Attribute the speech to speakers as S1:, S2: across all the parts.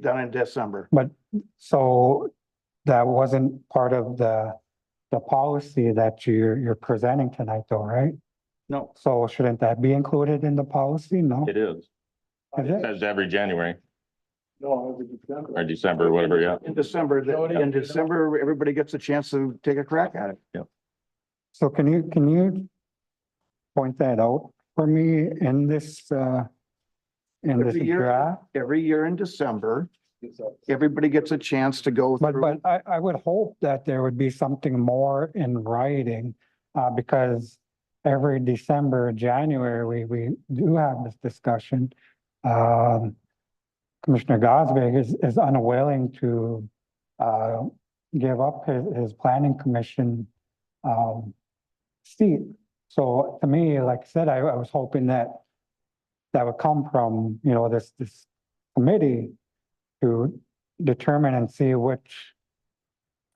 S1: done in December.
S2: So that wasn't part of the, the policy that you're, you're presenting tonight though, right?
S1: No,
S2: So shouldn't that be included in the policy? No?
S3: It is.
S2: Is
S3: It
S2: it?
S3: says every January
S4: No, it was December.
S3: or December, whatever, yeah.
S1: in December, the- in December, everybody gets a chance to take a crack at it.
S2: So can you, can you point that out for me in this, uh, in this
S1: Every year.
S2: draft?
S1: Every year in December, everybody gets a chance to go
S2: But,
S1: through.
S2: but I, I would hope that there would be something more in writing, uh, because every December, January, we, we do have this discussion. Um, Commissioner Gosbick is, is unwilling to, uh, give up his, his planning commission, um, seat. So to me, like I said, I, I was hoping that that would come from, you know, this, this committee to, determine and see which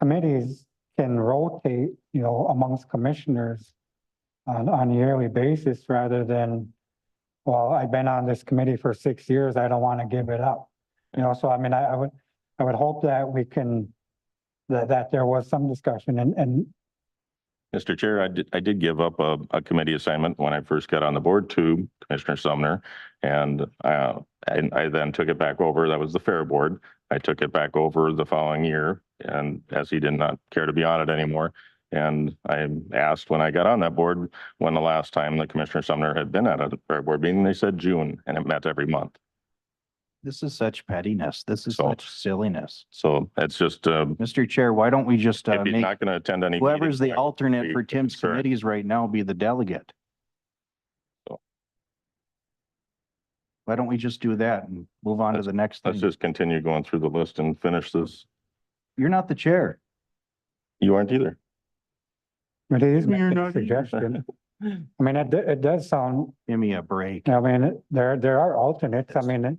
S2: committees can rotate, you know, amongst commissioners on, on a yearly basis rather than, well, I've been on this committee for six years, I don't want to give it up. You know, so I mean, I, I would, I would hope that we can, that, that there was some discussion and, and
S3: Mr. Chair, I did, I did give up a, a committee assignment when I first got on the board to Commissioner Sumner. And, uh, and I then took it back over. That was the Fair Board. I took it back over the following year and as he did not care to be on it anymore. And I asked when I got on that board, when the last time the Commissioner Sumner had been at a Fair Board meeting, they said June and it met every month.
S5: This is such pettiness. This is
S3: So-
S5: such silliness.
S3: So that's just, um,
S5: Mr. Chair, why don't we just uh,
S3: if he's
S5: make
S3: not going to attend any.
S5: whoever's the
S3: meetings, I will
S5: alternate
S3: be
S5: for Tim's
S3: concerned.
S5: committees right now be the delegate?
S3: So-
S5: Why don't we just do that and move on to the next
S1: Hmm.
S3: Let's
S5: thing?
S3: just continue going through the list and finish this.
S5: You're not the chair.
S3: You aren't either.
S2: it is
S3: You're
S2: a
S3: not-
S2: suggestion. I mean, it, do- it does sound,
S5: Give me a break.
S2: I mean, it- there, there are alternates. I mean, it-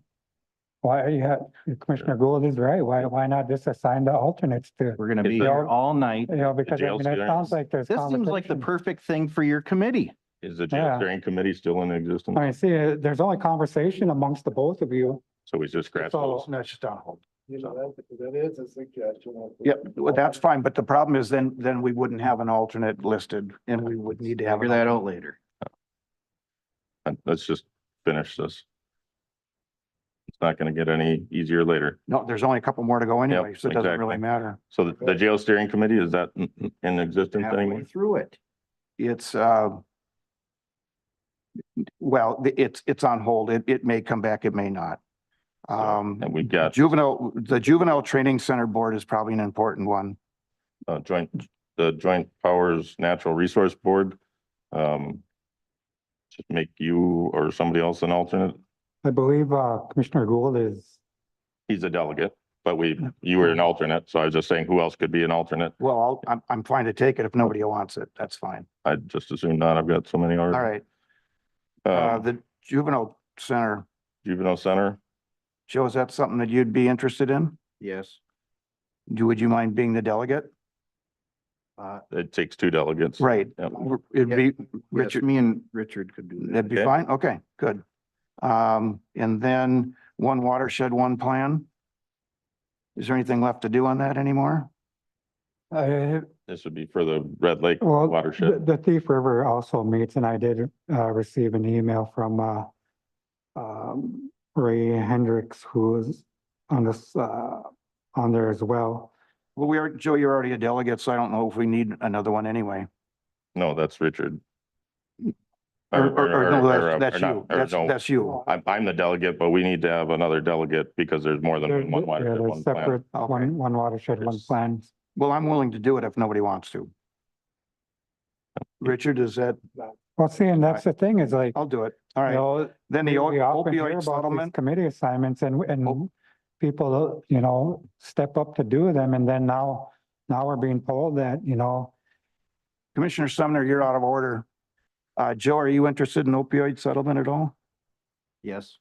S2: why, yeah, Commissioner Gould is right. Why, why not just assign the alternates to
S5: We're gonna be
S3: Is
S5: here
S2: there-
S5: all night.
S2: You know, because I
S3: jail
S2: mean, it
S3: clearance.
S2: sounds like there's.
S5: This seems like the
S2: conversation.
S5: perfect thing for your committee.
S3: Is the jail
S2: Yeah.
S3: steering committee still in existence?
S2: I mean, see, uh, there's only conversation amongst the both of you.
S3: So we just scratch
S2: So-
S3: those.
S1: No, it's just on hold.
S4: You know, that, that is a suggestion.
S1: Yep, well, that's fine, but the problem is then, then we wouldn't have an alternate listed and we would need to have.
S5: Figure
S1: an
S5: that out later.
S3: Uh, Let's just finish this. It's not going to get any easier later.
S1: No, there's only a couple more to go anyway, so it doesn't
S3: exactly.
S1: really matter.
S3: So the- the jail steering committee, is that in- in existence
S1: Halfway
S3: anymore?
S1: through it. It's, uh, well, the- it's, it's on hold. It, it may come back, it may not. Um,
S3: And we've got
S1: juvenile, the Juvenile Training Center Board is probably an important one.
S3: uh, joint, the Joint Powers Natural Resource Board. Um, Just make you or somebody else an alternate.
S2: I believe uh, Commissioner Gould is,
S3: He's a delegate, but we, you were an alternate. So I was just saying who else could be an alternate?
S1: Well, I'll- I'm, I'm fine to take it if nobody wants it. That's fine.
S3: I just assume not. I've got so many already.
S1: All right, uh,
S3: Um,
S1: the Juvenile Center,
S3: Juvenile Center,
S1: Joe, is that something that you'd be interested in?
S5: Yes.
S1: Do, would you mind being the delegate?
S3: it takes two delegates.
S1: Right,
S3: Yep.
S1: it'd
S5: Yeah.
S1: be,
S5: Yes,
S1: Richard,
S5: me and Richard could do that.
S1: that'd be
S3: Okay.
S1: fine, okay, good. Um, and then one watershed, one plan. Is there anything left to do on that anymore?
S2: uh,
S3: This would be for the Red Lake
S2: well,
S3: watershed.
S2: the the Thief River also meets and I did uh, receive an email from uh, um, Ray Hendricks, who is on this, uh, on there as well.
S1: Well, we are, Joe, you're already a delegate, so I don't know if we need another one anyway.
S3: No, that's Richard.
S1: Or, or,
S3: Or-
S1: or,
S3: or-
S1: no,
S3: or- or
S1: that's, that's
S3: not-
S1: you,
S3: or
S1: that's,
S3: no.
S1: that's you.
S3: I'm, I'm the delegate, but we need to have another delegate because there's more
S2: They're-
S3: than one
S2: yeah,
S3: watershed,
S2: they're
S3: one plan.
S2: Separate,
S1: Okay.
S2: one, one watershed, one
S3: Yes.
S2: plan.
S1: Well, I'm willing to do it if nobody wants to. Richard, is that,
S2: Well, see, and that's the thing is like,
S1: I'll do it. All
S2: you
S1: right,
S2: know,
S1: then the
S2: We we often hear
S1: opioid
S2: about these
S1: settlement.
S2: Committee assignments and, and
S1: Oh.
S2: people, you know, step up to do them and then now, now we're being told that, you know,
S1: Commissioner Sumner, you're out of order. Uh, Joe, are you interested in opioid settlement at all?
S5: Yes.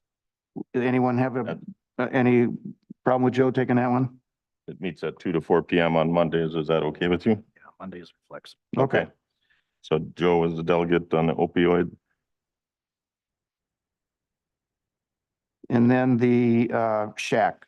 S1: Did anyone have
S3: Uh,
S1: a, uh, any problem with Joe taking that one?
S3: It meets at two to four PM on Mondays. Is that okay with you?
S5: Yeah, Mondays are flexible.
S1: Okay.
S3: So Joe is the delegate on the opioid.
S1: And then the, uh, shack.